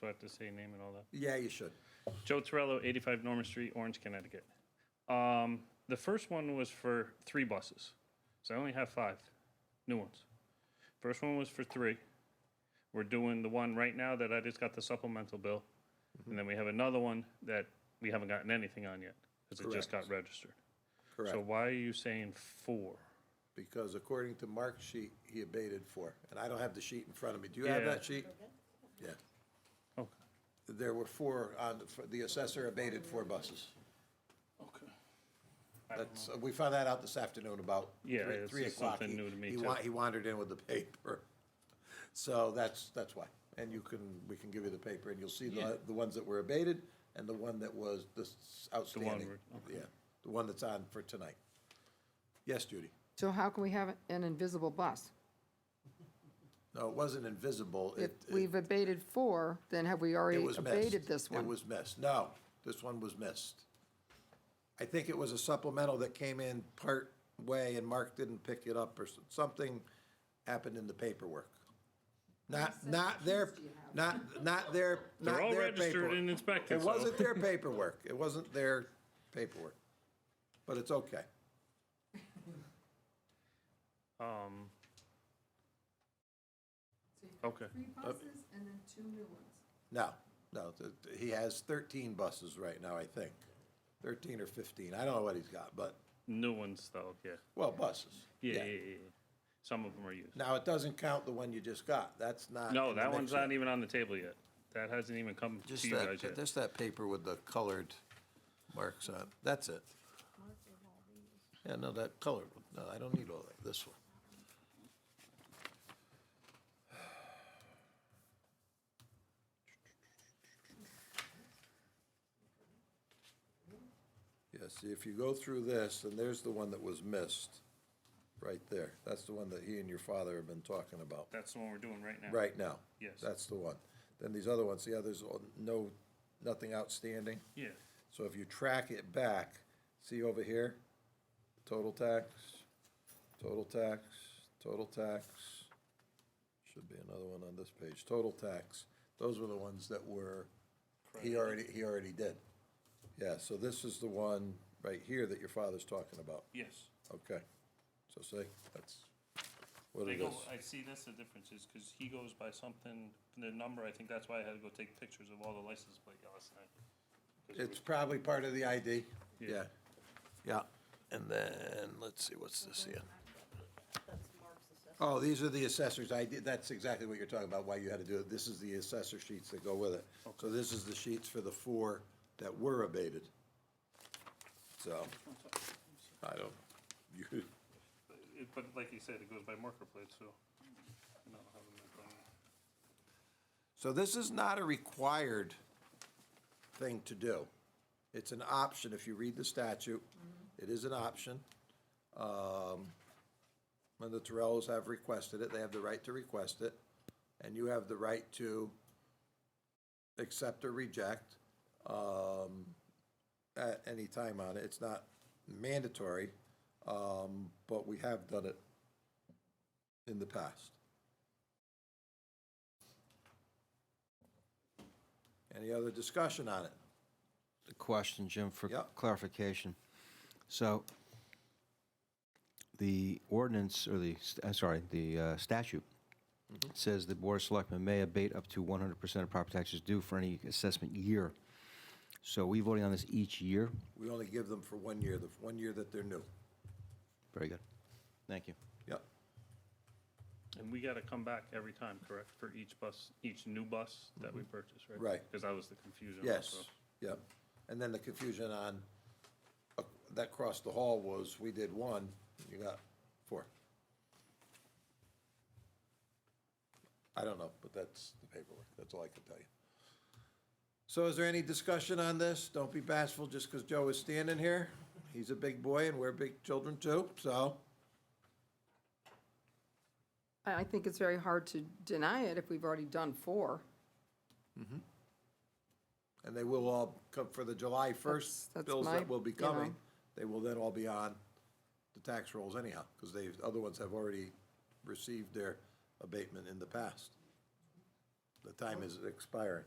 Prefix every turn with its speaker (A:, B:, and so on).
A: Do I have to say your name and all that?
B: Yeah, you should.
A: Joe Torello, 85 Norman Street, Orange, Connecticut. Um, the first one was for three buses. So I only have five new ones. First one was for three. We're doing the one right now that I just got the supplemental bill. And then we have another one that we haven't gotten anything on yet because it just got registered. So
B: Correct.
A: why are you saying four?
B: Because according to Mark's sheet, he abated four. And I don't have the sheet in front of me. Do you have
A: Yeah.
B: that sheet? Yeah.
A: Okay.
B: There were four on, the- for- the assessor abated four buses.
A: Okay.
B: That's, uh, we found that out this afternoon about
A: Yeah,
B: three-
A: this
B: three
A: is
B: o'clock.
A: something
B: He-
A: new to me,
B: he
A: too.
B: wa- He wandered in with the paper. So that's, that's why. And you can, we can give you the paper and you'll see the, the ones that were abated and the one that was this outstanding.
A: where-
B: Yeah, the one that's on for tonight. Yes, Judy?
C: So how can we have an invisible bus?
B: No, it wasn't invisible.
C: If
B: It- it-
C: we've abated four, then have we
B: It
C: already
B: was missed.
C: abated this one?
B: It was missed. No, this one was missed. I think it was a supplemental that came in part way and Mark didn't pick it up or s- something happened in the paperwork. Not, not their, not, not their, not
A: They're all
B: their
A: registered
B: paperwork.
A: and inspected.
B: It
A: so-
B: wasn't their paperwork. It wasn't their paperwork. But it's okay.
A: Um, okay.
C: buses and then two new ones.
B: No, no, th- th- he has thirteen buses right now, I think. Thirteen or fifteen. I don't know what he's got, but,
A: New ones though, yeah.
B: well, buses.
A: Yeah, yeah, yeah. yeah. Some of them are used.
B: Now, it doesn't count the one you just got. That's not.
A: No,
B: in the
A: that one's
B: mix
A: not even on the table yet. That hasn't even come
B: yet. Just
A: to you guys
B: that,
A: yet.
B: just that paper with the colored marks on. That's it. Yeah, no, that colored one. No, I don't need all that. This one. Yeah, see, if you go through this, and there's the one that was missed, right there. That's the one that he and your father have been talking about.
A: That's the one we're doing right now.
B: Right now?
A: Yes.
B: That's the one. Then these other ones, the others, all- no, nothing outstanding.
A: Yeah.
B: So if you track it back, see over here, total tax, total tax, total tax. Should be another one on this page, total tax. Those were the ones that were, he already, he already did. Yeah, so this is the one right here that your father's talking about.
A: Yes.
B: Okay. So see, that's what
A: They
B: it
A: go,
B: is.
A: I see that's the difference is because he goes by something, the number, I think that's why I had to go take pictures of all the license plate last night. 'Cause it
B: It's probably part of the ID,
A: Yeah.
B: yeah. Yeah, and then, let's see, what's this here? Oh, these are the assessor's ID, that's exactly what you're talking about, why you had to do it. This is the assessor sheets that go with it. So this is the sheets for the four that were abated. So, I don't, you,
A: was- it- But like you said, it goes by marker plate, so. I don't have them in front of me.
B: So this is not a required thing to do. It's an option, if you read the statute, it is an option. Um, When the Torellos have requested it, they have the right to request it, and you have the right to accept or reject um, at any time on it. It's not mandatory, um, but we have done it in the past. Any other discussion on it?
D: a question, Jim, for
B: Yep.
D: clarification. So the ordinance, or the, st- I'm sorry, the uh, statute says the Board of Selectmen may abate up to 100% of property taxes due for any assessment year. So we voting on this each year?
B: We only give them for one year, the one year that they're new.
D: Very good. Thank you.
B: Yep.
A: And we gotta come back every time, correct, for each bus, each new bus that we purchase, right?
B: Mm-hmm. Right.
A: Because that was the confusion
B: Yes,
A: also.
B: yep. And then the confusion on, uh, that crossed the hall was, we did one, you got four. I don't know, but that's the paperwork, that's all I can tell you. So is there any discussion on this? Don't be bashful just because Joe is standing here. He's a big boy and we're big children too, so.
C: I, I think it's very hard to deny it if we've already done four.
B: And they will all come for the July
C: That's-
B: first
C: that's
B: bills
C: my,
B: that will be
C: you know.
B: coming. They will then all be on the tax rolls anyhow, because they, other ones have already received their abatement in the past. The time is expiring.